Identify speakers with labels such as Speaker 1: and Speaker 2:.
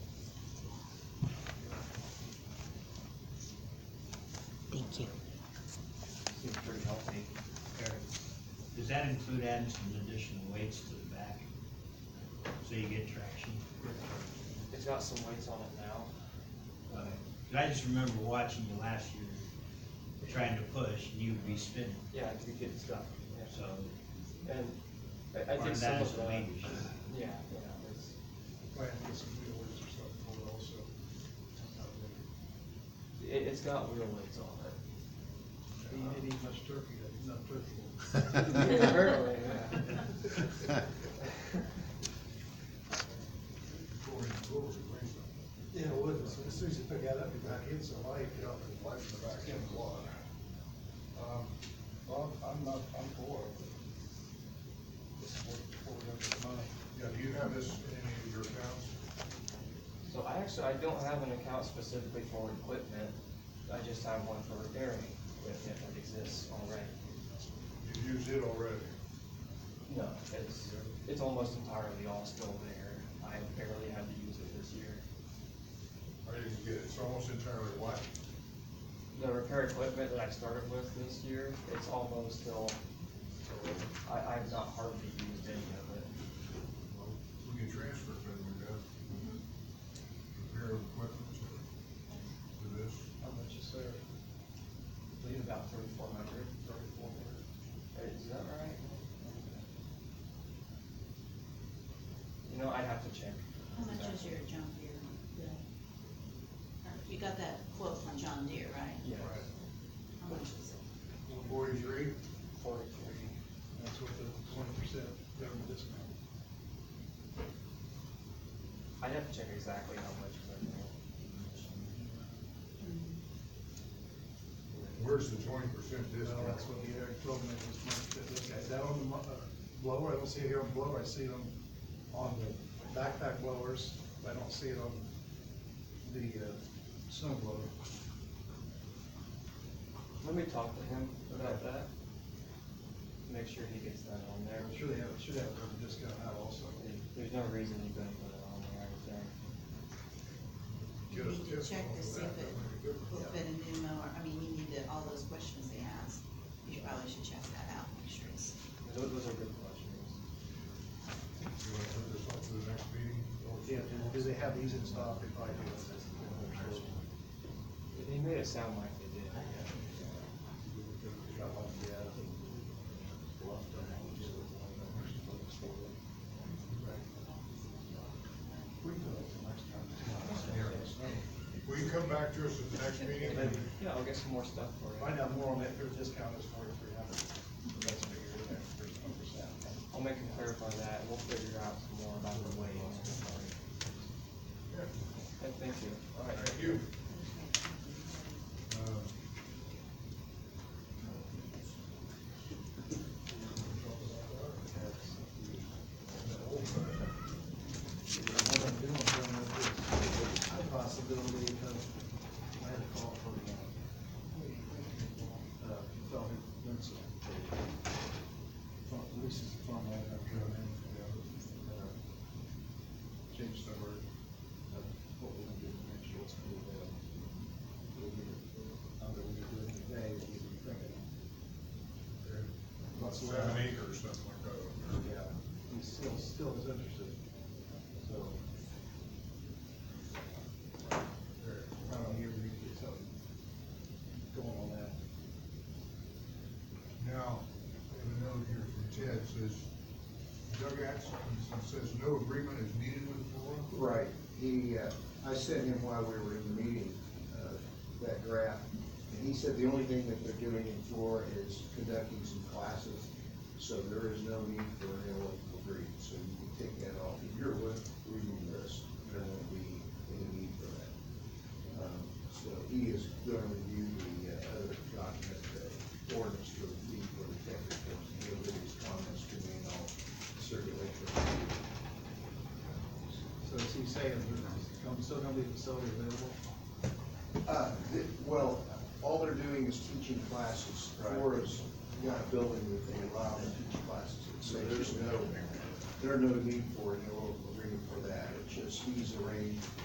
Speaker 1: that include adding some additional weights to the back? So you get traction?
Speaker 2: It's got some weights on it now.
Speaker 1: Uh, 'cause I just remember watching you last year, trying to push, and you'd be spinning,
Speaker 2: Yeah, I could get stuff, yeah.
Speaker 1: so.
Speaker 2: And I, I
Speaker 1: part
Speaker 2: did
Speaker 1: of
Speaker 2: some
Speaker 1: that is
Speaker 2: of
Speaker 1: the
Speaker 2: that.
Speaker 1: weight issue.
Speaker 2: Yeah, yeah, it's,
Speaker 3: Might have to get some wheel weights or something for it also. sometime later.
Speaker 2: it, it's got real weights on
Speaker 3: But You didn't eat much turkey, that is not turkey.
Speaker 2: it. Apparently, yeah.
Speaker 3: Glory, glory, glory. Yeah, it would, as soon as you pick that up, you're back in, so I get out and wipe the back end of the water. Um, Well, I'm not, I'm for it. This is what, what we're gonna get money.
Speaker 4: Yeah, do you have this in any of your accounts?
Speaker 2: So I actually, I don't have an account specifically for equipment, I just have one for repairing equipment that exists already.
Speaker 4: You've used it already.
Speaker 2: No, it's, it's almost entirely all still there, I barely had to use it this year.
Speaker 4: I didn't get it. It's almost entirely white.
Speaker 2: The repair equipment that I started with this year, it's almost still, I, I've not hardly used any of it.
Speaker 4: Well, We can transfer it, then we got repair of equipment to, to this.
Speaker 3: How much is there?
Speaker 2: I believe about thirty-four hundred, thirty-four hundred. Is that right? You know, I'd have to check.
Speaker 5: How much is your John Deere? You got that quote from John Deere, right?
Speaker 2: Yeah,
Speaker 5: How much is it?
Speaker 4: Forty-three?
Speaker 2: forty-three.
Speaker 3: That's what the twenty percent government discount.
Speaker 2: I'd have to check exactly how much, 'cause I don't know.
Speaker 4: Where's the twenty percent
Speaker 3: Well,
Speaker 4: discount?
Speaker 3: that's what he already told me was much, but look, is that on the mo- uh, blower? I don't see it here on blower, I see it on, on the backpack blowers, but I don't see it on the, uh, snow blower.
Speaker 2: Let me talk to him about that. Make sure he gets that on there.
Speaker 3: I'm sure they have, should have a discount out also.
Speaker 2: There's no reason you couldn't put it on there, I think.
Speaker 4: Get
Speaker 5: You
Speaker 4: a
Speaker 5: need to
Speaker 4: discount
Speaker 5: check
Speaker 4: on
Speaker 5: to see
Speaker 4: that.
Speaker 5: if it
Speaker 4: That'd be good.
Speaker 5: will fit a new mower, I mean, you need to, all those questions they asked, you probably should check that out, make sure it's.
Speaker 2: Those, those are good questions.
Speaker 4: You wanna put this off to the next meeting?
Speaker 3: Yeah, do- do they have these in stock? They probably do.
Speaker 2: He made it sound like they did.
Speaker 3: We can do it the next time.
Speaker 4: Will you come back to us at the next meeting?
Speaker 2: Yeah, I'll get some more stuff for you.
Speaker 3: Find out more on that, their discount is forty-three hundred. That's figured in there, there's one percent.
Speaker 2: I'll make him clarify that, and we'll figure out some more about the weight.
Speaker 4: Yeah.
Speaker 2: Okay, Thank you.
Speaker 4: All right, thank you. Um,
Speaker 3: The possibility of, I had a call from, uh, fellow who runs a, from, Reese's farm, I have grown in, uh, change the word, of what we're gonna do, to make sure it's gonna be, uh, we'll be, uh, that we're doing today, that we'll be thinking.
Speaker 4: About seven acres, something like that. over there.
Speaker 3: Yeah, he still, still is interested, so.
Speaker 4: There.
Speaker 3: I don't hear we get something going on that.
Speaker 4: Now, I have a note here from Ted, says, Doug Atkinson says, no agreement is needed with Flora.
Speaker 6: Right, he, uh, I sent him while we were in the meeting, uh, that graph, and he said the only thing that they're doing in Florida is conducting some classes, so there is no need for an analytical degree, so you can take that off of your list, reading list, there won't be any need for that. Um, So he is gonna review the uh, other document, the ordinance for the lead for the tech reports, and he'll leave his comments to me, and I'll circulate for you.
Speaker 3: So is he saying there's gonna- still gonna be a facility available?
Speaker 6: Uh, th- Well, all they're doing is teaching classes.
Speaker 3: Right.
Speaker 6: Flora's got a building that they allow them to teach classes. in. So there's no, there's no need for an oral agreement for that. It's just he's arranged